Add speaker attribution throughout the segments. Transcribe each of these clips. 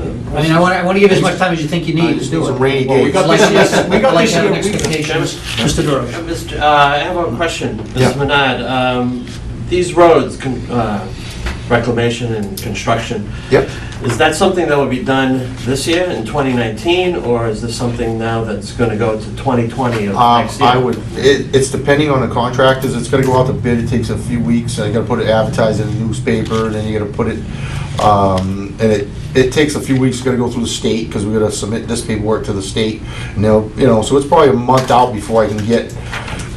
Speaker 1: I mean, I want, I want to give you as much time as you think you
Speaker 2: I
Speaker 1: need to
Speaker 2: just
Speaker 1: do
Speaker 2: need
Speaker 1: it.
Speaker 2: some rainy
Speaker 1: Well,
Speaker 2: days.
Speaker 1: like-
Speaker 3: We got this- we got
Speaker 1: like
Speaker 3: this
Speaker 1: having
Speaker 3: year. We-
Speaker 1: expectations. Mr.
Speaker 3: Uh,
Speaker 1: Durham.
Speaker 3: Mr., uh, I have a question,
Speaker 2: Yeah.
Speaker 3: Mrs. Menard. Um, These roads, con- uh, reclamation and construction.
Speaker 2: Yep.
Speaker 3: Is that something that will be done this year in 2019, or is this something now that's going to go to 2020 of
Speaker 2: Um,
Speaker 3: next year?
Speaker 2: I would, it, it's depending on the contractors, it's gonna go out to bid, it takes a few weeks, I gotta put it advertised in the newspaper, and then you gotta put it, um, and it, it takes a few weeks, it's gotta go through the state, cause we gotta submit this paperwork to the state, and they'll, you know, so it's probably a month out before I can get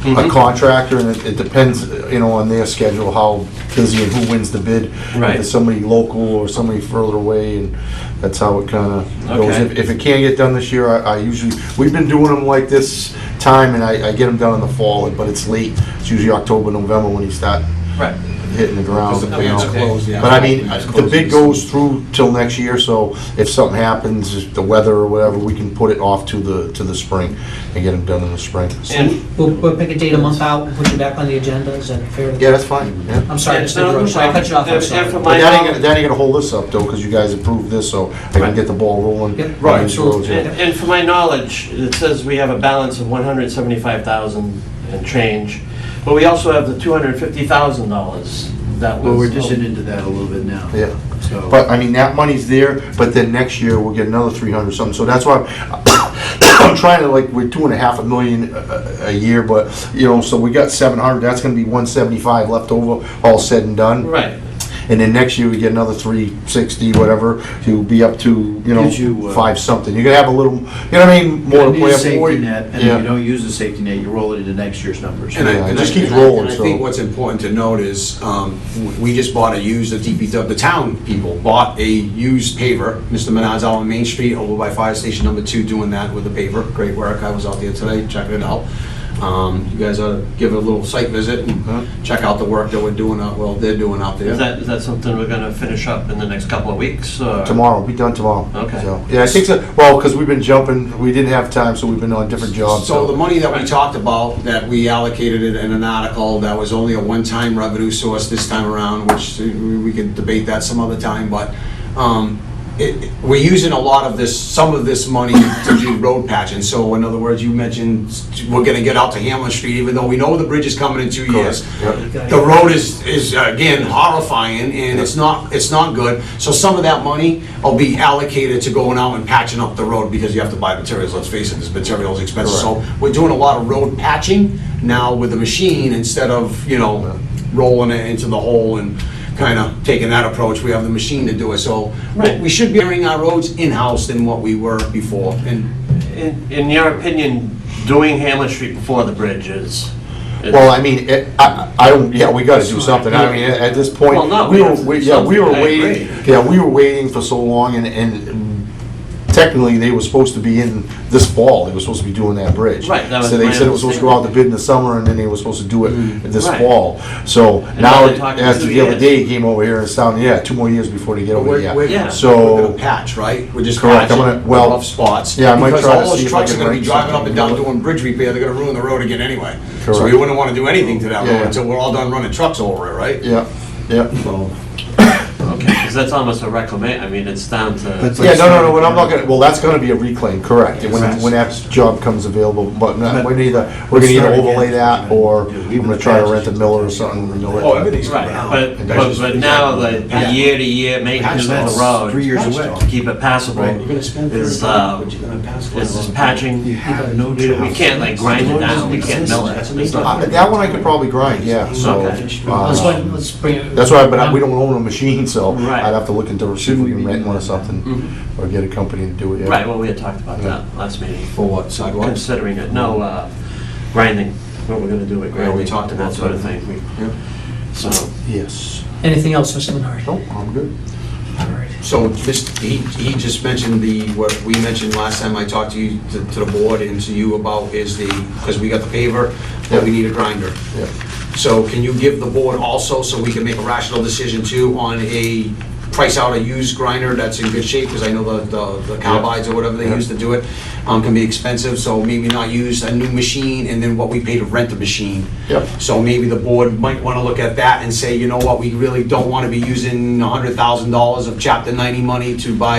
Speaker 2: a
Speaker 3: Mhm.
Speaker 2: contractor, and it, it depends, you know, on their schedule, how busy and who wins the bid.
Speaker 3: Right.
Speaker 2: If it's somebody local or somebody further away, and that's how it kinda goes.
Speaker 3: Okay.
Speaker 2: If- If it can't get done this year, I I usually, we've been doing them like this time, and I I get them done in the fall, but it's late. It's usually October, November when you start
Speaker 3: Right.
Speaker 2: hitting the ground.
Speaker 4: Because the
Speaker 2: you know.
Speaker 4: plant's closed, yeah.
Speaker 2: But I mean,
Speaker 4: Plant's
Speaker 2: the
Speaker 4: closed.
Speaker 2: bid goes through till next year, so if something happens, if the weather or whatever, we can put it off to the, to the spring and get them done in the spring.
Speaker 3: And
Speaker 1: We'll, we'll pick a date a month out, and put you back on the agenda, is that fair?
Speaker 2: Yeah, that's fine, yeah.
Speaker 1: I'm sorry,
Speaker 3: Yeah,
Speaker 1: Mr.
Speaker 3: no,
Speaker 1: Durham, sorry, I cut you off, I'm
Speaker 3: if- if
Speaker 1: sorry.
Speaker 3: I'm-
Speaker 2: But that ain't gonna, that ain't gonna hold us up though, because you guys approved this, so I can
Speaker 3: Right.
Speaker 2: get the ball rolling.
Speaker 1: Yep.
Speaker 2: on
Speaker 4: Right,
Speaker 2: these
Speaker 4: so-
Speaker 2: roads, yeah.
Speaker 3: And and for my knowledge, it says we have a balance of 175,000 and change, but we also have the $250,000 that
Speaker 5: Well,
Speaker 3: was...
Speaker 5: we're dishing into that a little bit now.
Speaker 2: Yeah.
Speaker 5: So-
Speaker 2: But, I mean, that money's there, but then next year, we'll get another three hundred something, so that's why I'm- I'm trying to, like, we're two and a half a million a, a- a year, but, you know, so we got seven hundred, that's gonna be one seventy-five left over, all said and done.
Speaker 3: Right.
Speaker 2: And then next year, we get another three sixty, whatever, to be up to, you
Speaker 5: Gives you,
Speaker 2: know,
Speaker 5: uh,
Speaker 2: five something, you're gonna have a little, you know what I mean?
Speaker 5: You
Speaker 2: More to
Speaker 5: need
Speaker 2: play
Speaker 5: a
Speaker 2: up for.
Speaker 5: safety net, and
Speaker 2: Yeah.
Speaker 5: if you don't use the safety net, you roll it into next year's numbers.
Speaker 4: And I-
Speaker 2: Yeah, it
Speaker 4: and
Speaker 2: just
Speaker 4: I-
Speaker 2: keeps
Speaker 4: and I-
Speaker 2: rolling,
Speaker 4: And I
Speaker 2: so-
Speaker 4: think what's important to note is, um, w- we just bought a used, the DPW, the town people bought a used paver. Mr. Menard's out on Main Street over by Fire Station Number Two doing that with a paver. Great work. I was out there today checking it out. Um, You guys ought to give it a little site visit
Speaker 2: Huh?
Speaker 4: and check out the work that we're doing, out- well, they're doing out there.
Speaker 3: Is that, is that something we're gonna finish up in the next couple of weeks, or?
Speaker 2: Tomorrow, be done tomorrow.
Speaker 3: Okay.
Speaker 2: So, Yeah, I think so, well, because we've been jumping, we didn't have time, so we've been on different jobs,
Speaker 4: So the
Speaker 2: so.
Speaker 4: money that we talked about, that we allocated it in an article, that was only a one-time revenue source this time around, which uh, we we could debate that some other time, but um, it- it- we're using a lot of this, some of this money to do road patching. So in other words, you mentioned we're gonna get out to Hamlet Street, even though we know the bridge is coming in two years.
Speaker 2: Yep.
Speaker 4: The road is, is again horrifying, and it's not, it's not good. So some of that money will be allocated to going out and patching up the road, because you have to buy materials, let's face it, this material is expensive. So we're doing a lot of road patching now with the machine, instead of, you know, rolling it into the hole and kind of taking that approach, we have the machine to do it. So we should be doing our roads in-house than what we were before, and
Speaker 3: In, in your opinion, doing Hamlet Street before the bridge is? is-
Speaker 2: Well, I mean, it, I, I don't, yeah, we gotta do something, I mean, at at this point,
Speaker 3: Well, no,
Speaker 2: we
Speaker 3: we
Speaker 2: were,
Speaker 3: have to do
Speaker 2: we- yeah, we were
Speaker 3: something. I agree.
Speaker 2: waiting, yeah, we were waiting for so long, and, and technically, they were supposed to be in this fall, they were supposed to be doing that bridge.
Speaker 3: Right, that was
Speaker 2: So they
Speaker 3: my Mm,
Speaker 2: said it was supposed to go out to bid in the summer, and then they were supposed to do it this
Speaker 3: Right.
Speaker 2: fall, so
Speaker 3: now
Speaker 2: now,
Speaker 3: they're talking
Speaker 2: as
Speaker 3: two
Speaker 2: of the other
Speaker 3: years.
Speaker 2: day, he came over here and sounded, yeah, two more years before they get over
Speaker 4: We're,
Speaker 2: here.
Speaker 4: we're,
Speaker 3: Yeah.
Speaker 2: So-
Speaker 4: we're gonna patch, right? We're just
Speaker 2: Correct, I'm
Speaker 4: patching
Speaker 2: gonna-
Speaker 4: the
Speaker 2: well,
Speaker 4: rough spots.
Speaker 2: yeah, I might try to
Speaker 4: Because all
Speaker 2: see if
Speaker 4: those
Speaker 2: I
Speaker 4: trucks are
Speaker 2: can
Speaker 4: gonna be
Speaker 2: wrench
Speaker 4: driving up
Speaker 2: something
Speaker 4: and down
Speaker 2: into it.
Speaker 4: doing bridge repair, they're gonna ruin the road again anyway. So
Speaker 2: Correct.
Speaker 4: we wouldn't wanna do anything to that
Speaker 2: Yeah.
Speaker 4: road until we're all done running trucks over it, right?
Speaker 2: Yeah, yeah.
Speaker 4: So,
Speaker 3: Because that's almost a reclamation, I mean, it's down
Speaker 5: That's
Speaker 3: to,
Speaker 5: like-
Speaker 2: Yeah, no, no, no, when I'm not gonna, well, that's gonna be a reclaim, correct, when,
Speaker 5: Yes.
Speaker 2: when that job comes available, but not, we're either, we're gonna
Speaker 5: Let's
Speaker 2: either
Speaker 5: start
Speaker 2: overlay
Speaker 5: again.
Speaker 2: that, or
Speaker 5: Yeah,
Speaker 2: I'm
Speaker 5: even
Speaker 2: gonna
Speaker 5: the
Speaker 2: try to
Speaker 5: patches
Speaker 2: rent a
Speaker 5: should
Speaker 2: miller or
Speaker 5: take
Speaker 2: something. and mill it.
Speaker 4: oh, everything's
Speaker 3: right,
Speaker 4: coming out.
Speaker 3: but, but but now, the the year-to-year maintenance of
Speaker 5: That's
Speaker 3: the road.
Speaker 5: three years away.
Speaker 3: To keep it passable
Speaker 5: Right. You're
Speaker 4: You're gonna spend
Speaker 3: is,
Speaker 4: thirty
Speaker 3: uh,
Speaker 4: dollars, but you're gonna pass.
Speaker 3: is this patching. We we can't like grind it down, we can't mill it. It's not-
Speaker 2: Uh, That one I could probably grind, yeah, so,
Speaker 3: Okay.
Speaker 1: Let's,
Speaker 2: uh,
Speaker 1: wait- let's bring it.
Speaker 2: that's why, but I- we don't own a machine, so
Speaker 3: Right.
Speaker 2: I'd have to look into, see if we can
Speaker 5: Shouldn't we
Speaker 2: rent
Speaker 5: be
Speaker 2: one or
Speaker 5: doing
Speaker 2: something, or get a company to do it, yeah.
Speaker 3: Right, well, we had talked about that last meeting,
Speaker 4: For what, sidewalks?
Speaker 3: considering it, no, uh, grinding, what we're gonna do with
Speaker 4: Yeah, we
Speaker 3: grinding.
Speaker 4: talked
Speaker 3: and
Speaker 4: about
Speaker 3: That sort of
Speaker 4: that.
Speaker 3: thing, We-
Speaker 4: Yeah.
Speaker 3: so.
Speaker 2: Yes,
Speaker 1: Anything else, Mr. Menard?
Speaker 2: no, I'm good.
Speaker 1: All right.
Speaker 4: So this, he, he just mentioned the, what we mentioned last time I talked to you, to to the board and to you about is the, because we got the paver, but we need a grinder.
Speaker 2: Yeah.
Speaker 4: So can you give the board also, so we can make a rational decision too, on a, price out a used grinder that's in good shape? Because I know the- the, the cowbides or whatever they
Speaker 2: Yeah.
Speaker 4: use to do it, um, can be expensive, so maybe not use a new machine and then what we pay to rent the machine.
Speaker 2: Yep.
Speaker 4: So maybe the board might want to look at that and say, you know what, we really don't want to be using hundred thousand dollars of chapter ninety money to buy